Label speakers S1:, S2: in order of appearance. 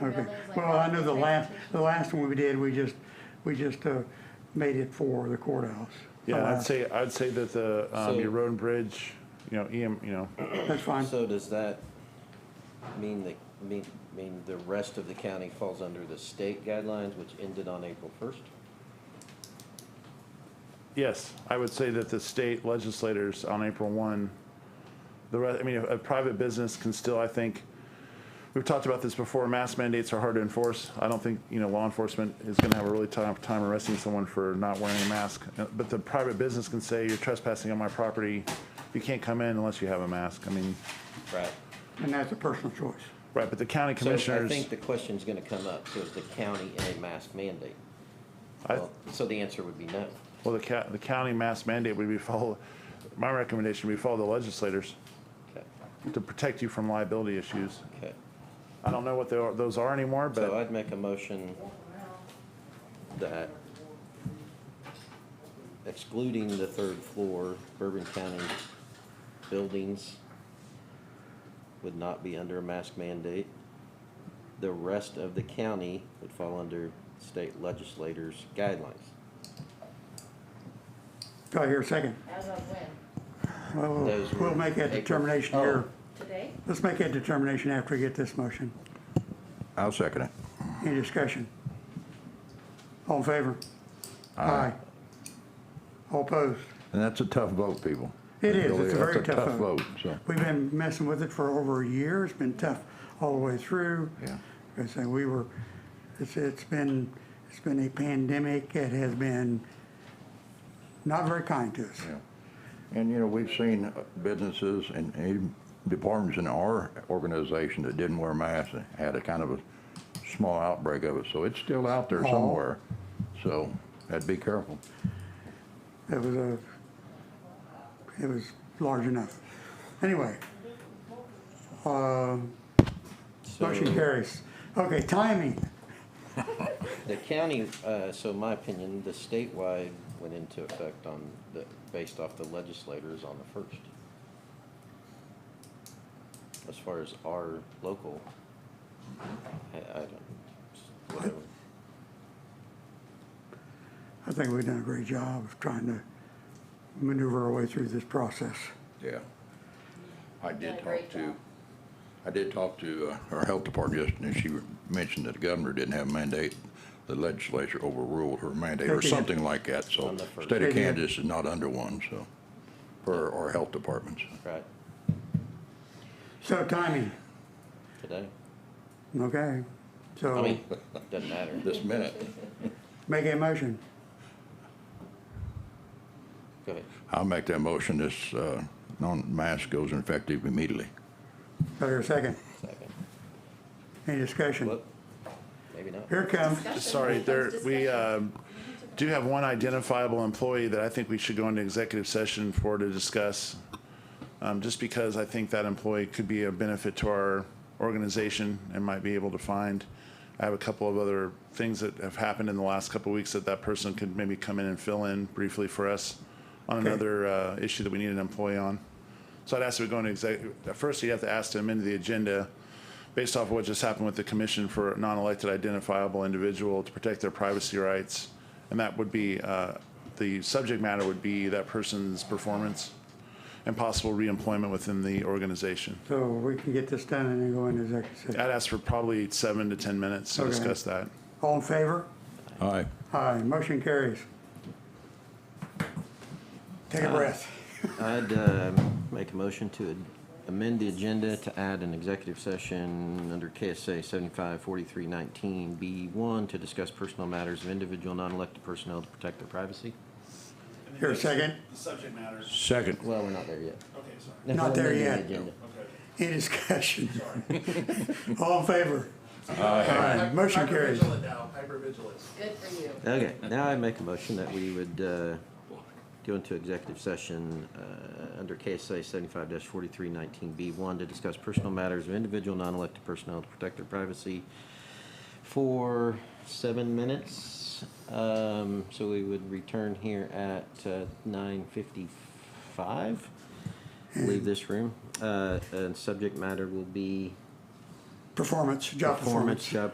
S1: buildings like
S2: Well, I know the last,
S1: transportation.
S2: the last one we did, we just, we just uh, made it for the courthouse. The
S3: Yeah, I'd
S2: last-
S3: say, I'd say that the, um,
S4: Oh, So-
S3: your road and bridge, you know, EM, you know,
S2: That's fine.
S4: So does that mean that, mean, mean the rest of the county falls under the state guidelines, which ended on April first?
S3: yes, I would say that the state legislators on April one, the rest, I mean, a, a private business can still, I think, we've talked about this before, mask mandates are hard to enforce. I don't think, you know, law enforcement is gonna have a really tough time arresting someone for not wearing a mask. Uh, But the private business can say, you're trespassing on my property, you can't come in unless you have a mask. I mean,
S4: Right.
S2: And that's a personal choice.
S3: right, but the county
S4: So I
S3: commissioners,
S4: think the question's gonna come up, so is the county in a mask mandate?
S3: I-
S4: Well, So the answer would be no.
S3: well, the ca- the county mask mandate would be follow, my recommendation would be follow the legislators.
S4: Okay,
S3: to protect you from liability issues.
S4: okay.
S3: I don't know what they are- those are anymore,
S4: So
S3: but
S4: I'd make a motion that excluding the third floor, Bourbon County buildings would not be under a mask mandate. The rest of the county would fall under state legislators' guidelines.
S2: Do I hear a second?
S1: As of when?
S2: Well, we'll-
S4: Those were
S2: We'll make that
S4: April-
S2: determination
S4: oh.
S2: here.
S1: Today?
S2: Let's make that determination after we get this motion.
S5: I'll second it.
S2: Any discussion? All in favor? Aye. All opposed?
S5: And that's a tough vote, people.
S2: It is.
S5: Really,
S2: It's a very
S5: that's
S2: tough vote.
S5: so.
S2: We've been messing with it for over a year. It's been tough all the way through.
S5: Yeah.
S2: I say we were, it's, it's been, it's been a pandemic. It has been not very kind to us.
S5: Yeah. And, you know, we've seen businesses and even departments in our organization that didn't wear masks and had a kind of a small outbreak of it, so it's still out there
S2: Oh.
S5: somewhere. So, I'd be careful.
S2: It was a, it was large enough. Anyway. um,
S4: So-
S2: Motion carries. Okay, timing.
S4: The county, uh, so my opinion, the statewide went into effect on the, based off the legislators on the first. As far as our local, I, I don't, whatever.
S2: I think we've done a great job of trying to maneuver our way through this process.
S5: Yeah. I
S1: did
S5: did
S1: a great
S5: talk to,
S1: job.
S5: I did talk to uh, our health department just, and she mentioned that the governor didn't have a mandate. The legislature overruled her mandate
S2: They
S5: or
S2: did.
S5: something like that, so
S4: On the first.
S5: state
S2: They
S5: of
S2: did.
S5: Kansas is not under one, so, for our health departments.
S4: Right,
S2: So timing,
S4: today?
S2: okay?
S4: I
S2: So
S4: mean, doesn't matter.
S5: This minute,
S2: make a motion.
S4: Go ahead.
S5: I'll make that motion, this, uh, non-mask goes effective immediately.
S2: Do I hear a second?
S4: Second.
S2: Any discussion?
S4: Well, maybe not.
S2: Here it comes.
S3: sorry, there, we
S1: Discussion.
S3: um, do have one identifiable employee that I think we should go into executive session for to discuss. um, Just because I think that employee could be a benefit to our organization and might be able to find. I have a couple of other things that have happened in the last couple of weeks that that person could maybe come in and fill in briefly for us on another uh, issue that we need an employee on. So I'd ask that we go into exec, at first you'd have to ask to amend the agenda based off of what just happened with the commission for a non-elected identifiable individual to protect their privacy rights. And that would be, uh, the subject matter would be that person's performance and possible reemployment within the organization.
S2: So we can get this done and then go into executive session.
S3: I'd ask for probably seven to 10 minutes to
S2: Okay.
S3: discuss that.
S2: All in favor?
S5: Aye.
S2: Aye, motion carries. Take a breath.
S4: I'd um, make a motion to amend the agenda to add an executive session under KSA 754319B1 to discuss personal matters of individual non-elected personnel to protect their privacy.
S2: Here, second.
S6: The subject matter.
S5: Second.
S4: Well, we're not there yet.
S6: Okay, sorry.
S2: Not there
S4: Amending
S2: yet.
S4: the agenda.
S2: Any discussion? All in favor? Aye. Motion carries.
S6: Hypervigilant now, hypervigilance.
S1: Good for you.
S4: Okay, now I make a motion that we would uh, go into executive session uh, under KSA 75-4319B1 to discuss personal matters of individual non-elected personnel to protect their privacy for seven minutes. Um, So we would return here at uh, 9:55, leave this room. Uh, And subject matter will be
S2: Performance, job performance.
S4: job